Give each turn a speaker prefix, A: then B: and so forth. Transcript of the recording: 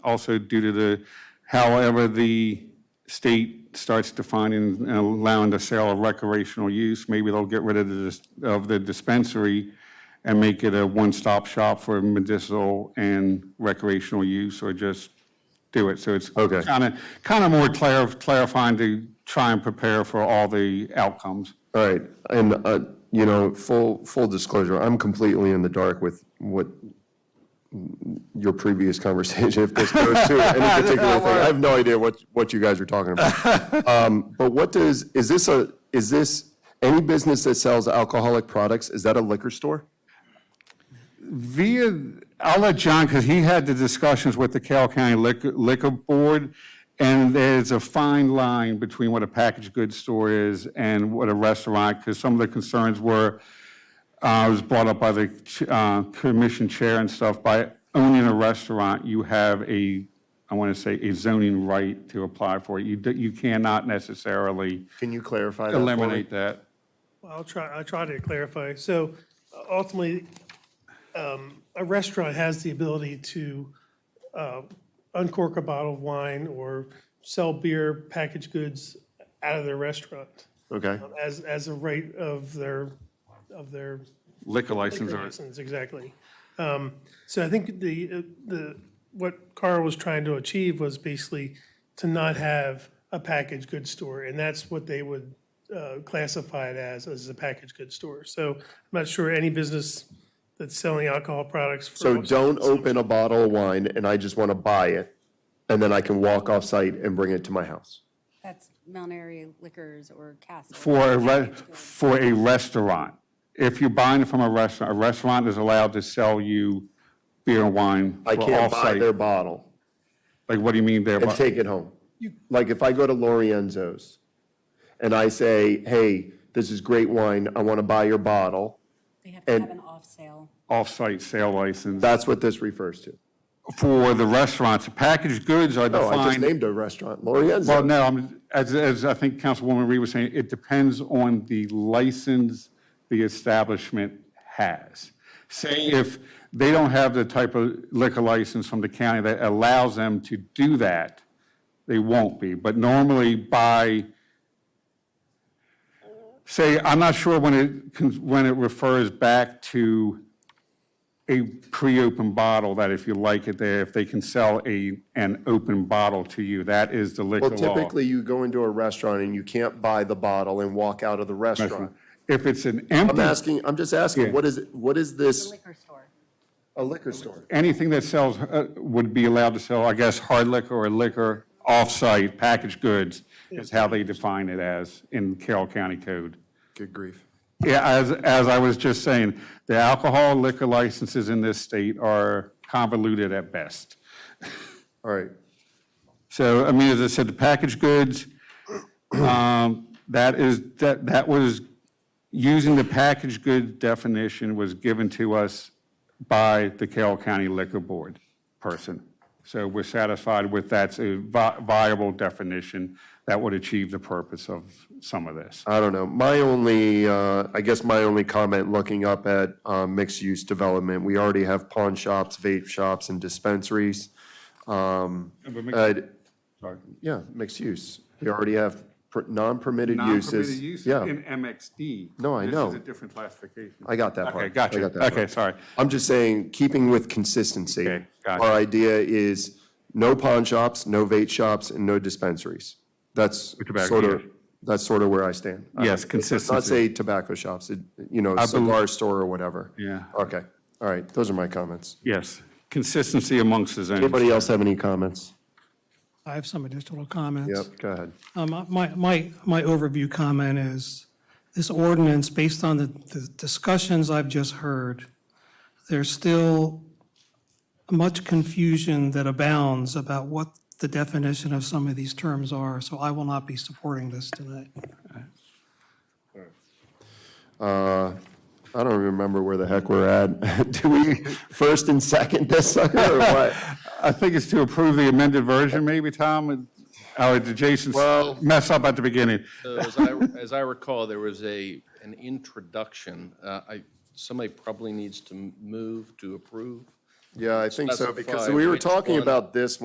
A: also due to the, however the state starts defining and allowing the sale of recreational use, maybe they'll get rid of the, dis- of the dispensary and make it a one-stop shop for medicinal and recreational use, or just do it. So it's
B: Okay.
A: kind of, kind of more clarif- clarifying to try and prepare for all the outcomes.
B: All right, and, uh, you know, full, full disclosure, I'm completely in the dark with what your previous conversation, if this goes to any particular thing. I have no idea what, what you guys were talking about. Um, But what does, is this a, is this, any business that sells alcoholic products, is that a liquor store?
A: Via, I'll let John, because he had the discussions with the Carroll County Liquor, Liquor Board, and there's a fine line between what a packaged goods store is and what a restaurant, because some of the concerns were, uh, was brought up by the, ch- uh, commission chair and stuff, by owning a restaurant, you have a, I want to say, a zoning right to apply for it. You, d- you cannot necessarily
B: Can you clarify that for me?
A: eliminate that.
C: I'll try, I'll try to clarify. So uh, ultimately, um, a restaurant has the ability to uh, uncork a bottle of wine or sell beer, packaged goods out of their restaurant
B: Okay,
C: um, as, as a rate of their, of their
A: Liquor license or
C: license, exactly. Um, So I think the, uh, the, what Carl was trying to achieve was basically to not have a packaged goods store, and that's what they would uh, classify it as, as a packaged goods store. So I'm not sure any business that's selling alcohol products. for-
B: so don't open a bottle of wine and I just want to buy it, and then I can walk off-site and bring it to my house?
D: That's Mount Airy Liquors or Castle.
A: For a, re- for a restaurant. If you're buying from a restaurant, a restaurant is allowed to sell you beer and wine
B: I
A: for
B: can't buy
A: off-site.
B: their bottle.
A: Like, what do you mean there?
B: and take it home. Like if I go to Lorienzo's and I say, hey, this is great wine, I want to buy your bottle,
D: They have to
B: and-
D: have an off sale.
A: Off-site sale license.
B: that's what this refers to.
A: For the restaurants, packaged goods are
B: No, I just
A: defined.
B: named a restaurant, Lorienzo's.
A: Well, no, I'm, as, as I think Councilwoman Reed was saying, it depends on the license the establishment has. Say if they don't have the type of liquor license from the county that allows them to do that, they won't be. But normally by, say, I'm not sure when it, con- when it refers back to a pre-open bottle, that if you like it there, if they can sell a, an open bottle to you, that is the liquor
B: Well,
A: law.
B: typically you go into a restaurant and you can't buy the bottle and walk out of the restaurant.
A: If it's an
B: I'm
A: empty,
B: asking, I'm just asking, what is, it- what is this,
D: Liquor store.
B: a liquor store?
A: anything that sells, uh, would be allowed to sell, I guess, hard liquor or liquor off-site, packaged goods is how they define it as in Carroll County Code.
B: Good grief.
A: Yeah, as, as I was just saying, the alcohol liquor licenses in this state are convoluted at best.
B: All right,
A: So, I mean, as I said, the packaged goods, um, that is, that, that was, using the packaged good definition was given to us by the Carroll County Liquor Board person. So we're satisfied with that's a vi- viable definition that would achieve the purpose of some of this.
B: I don't know. My only, uh, I guess my only comment, looking up at uh, mixed-use development, we already have pawn shops, vape shops, and dispensaries. Um,
A: but mixed-
B: I'd-
A: Sorry.
B: Yeah, mixed use. We already have per- non-permitted uses. Yeah,
A: MXD.
B: No, I This is know. a
A: different classification.
B: I got that part.
A: Okay,
B: I
A: gotcha.
B: got that part.
A: Okay, sorry.
B: I'm just saying, keeping with consistency.
A: Okay, gotcha.
B: Our idea is no pawn shops, no vape shops, and no dispensaries. That's
A: tobacco,
B: sort of,
A: yeah.
B: that's sort of where I stand. I-
A: Yes,
B: Let's not
A: consistency.
B: say tobacco shops, it- you know, cigar store or whatever.
A: Yeah.
B: Okay, all right, those are my comments.
A: Yes, consistency amongst the zones.
B: Anybody else have any comments?
E: I have some additional comments.
B: Yep, go ahead.
E: Um, My, my, my overview comment is, this ordinance, based on the the discussions I've just heard, there's still much confusion that abounds about what the definition of some of these terms are, so I will not be supporting this tonight.
B: Uh, I don't remember where the heck we're at. Do we first and second this sucker or what?
A: I think it's to approve the amended version, maybe, Tom? Oh, did Jason
B: Well-
A: mess up at the beginning?
F: So As I, as I recall, there was a, an introduction. Uh, I, somebody probably needs to move to approve.
B: Yeah, I think so, because
F: Specify
B: we were
F: which
B: talking
F: one.
B: about this